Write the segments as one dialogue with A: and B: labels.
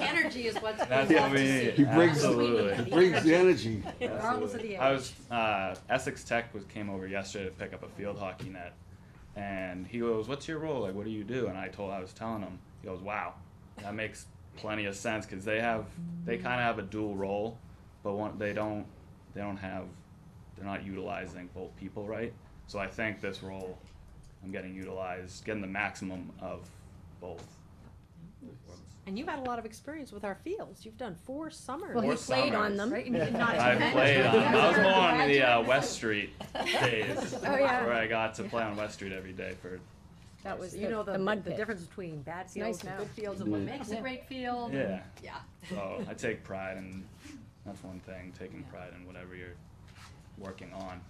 A: energy is what's.
B: That's
A: we
B: what
A: want to
B: we
A: see.
B: need.
C: He brings-
B: Absolutely.
A: We need
C: It brings the energy.
A: Regardless of the
B: I
A: age.
B: was uh, Essex Tech was came over yesterday to pick up a field hockey net, and he goes, "What's your role? Like, what do you do?" And I told, I was telling him, he goes, "Wow, that makes plenty of sense because they have they kind of have a dual role, but one they don't they don't have they're not utilizing both people right. So I think this role, I'm getting utilized, getting the maximum of both.
A: And you've had a lot of experience with our fields. You've done four summers.
D: Well, he
B: Or
D: played
B: summers.
D: on them.
A: Right? And you did not
B: I
A: attend.
B: played on. I was more on the uh,
A: Congratulations.
B: West Street days,
D: Oh, yeah.
B: where I got to play on West Street every day for
D: That was
A: You know,
D: the,
A: the,
D: the mud
A: the
D: pit.
A: difference between bad
D: nice
A: fields and
D: now.
A: good fields and
B: Mm.
A: what makes a great field. and-
B: yeah.
A: Yeah.
B: So I take pride in that's one thing taking pride in whatever you're working on.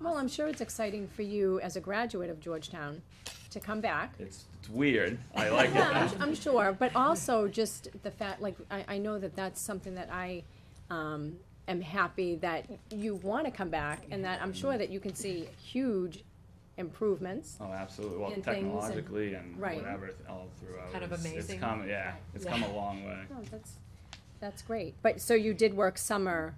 D: Well, I'm sure it's exciting for you as a graduate of Georgetown to come back.
B: It's it's weird. I like it.
D: Yeah, I'm,
B: now.
D: su- I'm sure, but also just the fact, like, I, I know that that's something that I, um, am happy that you wanna come back, and that I'm sure that you can see huge improvements.
B: Oh, absolutely. Well,
D: And things and-
B: technologically and,
D: right.
B: whatever th- all throughout.
E: Kind of
B: it's-
E: amazing.
B: It's come, yeah. It's come a long way.
D: No, Oh, that's, that's great, but, so you did work summer,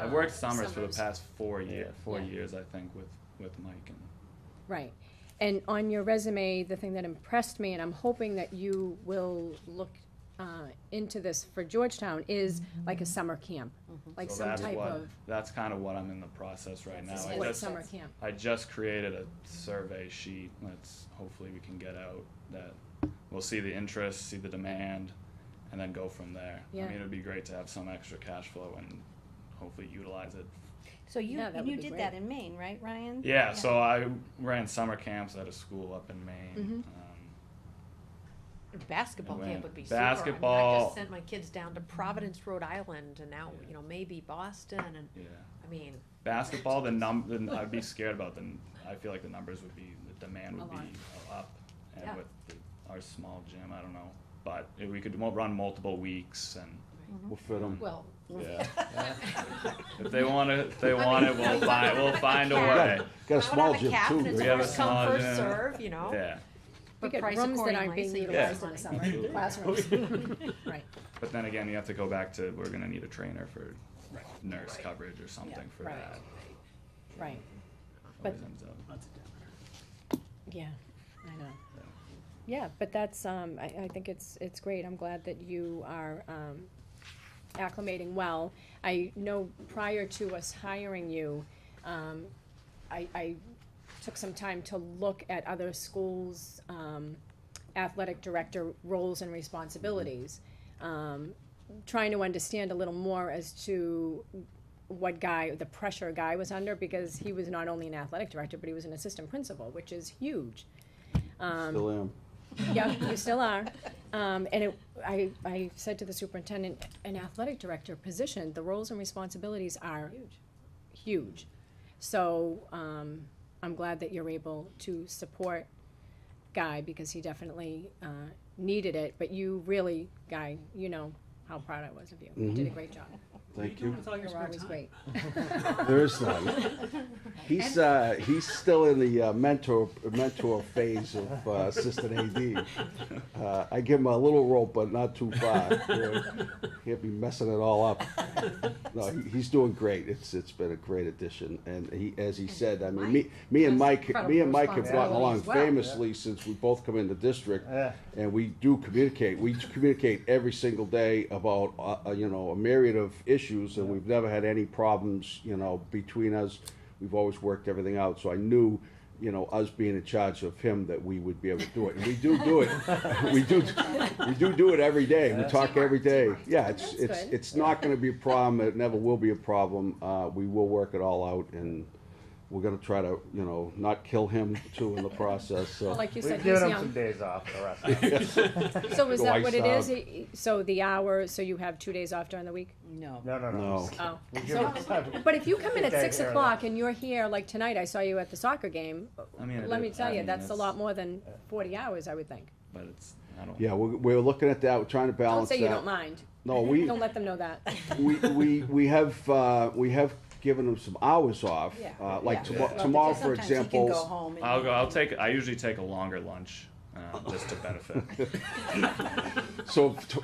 B: I've worked summers, for the
A: Summers.
B: past four year, four
D: Yeah.
B: years, I think, with with Mike and
D: right, and on your resume, the thing that impressed me, and I'm hoping that you will look, uh, into this for Georgetown, is like a summer camp, like
B: so
D: some
B: that's
D: type
B: what
D: of,
B: that's kind of what I'm in the process right now. I
D: what
B: just-
D: summer camp,
B: I just created a survey sheet that's hopefully we can get out that we'll see the interest, see the demand, and then go from there.
D: Yeah.
B: I mean, it'd be great to have some extra cash flow and hopefully utilize it.
F: So you,
D: Yeah, that
F: and
D: would
F: you
D: be
F: did
D: great.
F: that in Maine, right, Ryan?
B: Yeah, so I ran summer camps at a school up in Maine.
D: Mhm.
B: Um,
E: Basketball
B: Atlanta.
E: camp would be super. I mean, I
B: Basketball.
E: just sent my kids down to Providence, Rhode Island, and now, you know, maybe Boston, and,
B: yeah.
E: I mean,
B: Basketball, the num, the, n- I'd be scared about the, n- I feel like the numbers would be, the demand would
D: A lot.
B: be up. And
E: Yeah.
B: with the- our small gym, I don't know, but if we could mo- run multiple weeks and,
C: We'll fit 'em.
E: well,
B: yeah. If they want it, if they want it, we'll
E: I
B: find,
E: mean,
B: we'll find a
E: I would
B: way.
C: Got got a small
E: I would
C: gym
E: have a cap, and
C: too.
E: it's
B: We have a
E: first come,
B: small
E: first
B: gym.
E: serve, you know?
B: Yeah,
D: We
E: But
D: get
E: price
D: rooms that aren't
E: accordingly,
D: being
E: so you don't
D: utilized
E: waste
D: in the
E: money.
D: summer, classrooms. Right,
B: but then again, you have to go back to, we're gonna need a trainer for nurse coverage or something for
D: right.
B: that.
D: right, But-
B: Always ends up.
D: yeah, I know. Yeah, but that's, um, I, I think it's, it's great, I'm glad that you are, um, acclimating well. I know prior to us hiring you, um, I, I took some time to look at other schools, um, athletic director roles and responsibilities. Um, trying to understand a little more as to what guy, the pressure guy was under, because he was not only an athletic director, but he was an assistant principal, which is huge. Um,
C: Still am.
D: yeah, you still are. Um, and it, I, I said to the superintendent, an athletic director position, the roles and responsibilities are huge. So, um, I'm glad that you're able to support Guy because he definitely, uh, needed it, but you really, Guy, you know how proud I was of you. You did a great job.
C: Thank you.
D: You're always great.
C: There is none. He's uh, he's still in the uh, mentor mentor phase of uh, assistant AD. Uh, I give him a little rope, but not too far. you know. He'll be messing it all up. No, he, he's doing great. It's it's been a great addition, and he as he said, I mean, me me and Mike me and Mike have gotten along famously since we both come in the district, and we do communicate. We communicate every single day about uh, uh, you know a myriad of issues, and we've never had any problems. You know between us, we've always worked everything out. So I knew you know, us being in charge of him, that we would be able to do it. And we do do it. We do, we do do it every day. We talk every day. Yeah, it's,
D: That's
C: it's,
D: good.
C: it's not gonna be a problem. It never will be a problem. Uh, we will work it all out and we're gonna try to, you know, not kill him too in the process, so.
D: Well, like you said,
G: We've
D: he's
G: given him some
D: young.
G: days off, the rest of them.
D: So is
C: Go
D: that
C: ice
D: what it
C: out.
D: is? Y- So the hour, so you have two days off during the week?
F: No.
G: No, no, no.
C: No.
D: Oh.
G: We give him some-
D: But if you come in at
G: Okay,
D: six
G: fair
D: o'clock and you're here, like tonight, I saw you at the soccer game,
B: I mean, it
D: let me
B: is-
D: tell
B: I
D: you,
B: mean,
D: that's a lot more than forty hours, I would think.
B: But it's, I don't.
C: Yeah, we're, we're looking at that. We're trying to
D: Don't
C: balance that.
D: say you don't mind.
C: No, we,
D: Don't let them know that.
C: we, we, we have, uh, we have given him some hours off.
F: Yeah.
C: Uh, like
B: Yeah.
C: tomo- tomorrow, for
F: Sometimes he can
C: example.
F: go home. and-
B: I'll go. I'll take. I usually take a longer lunch, um, just to benefit.
C: So t-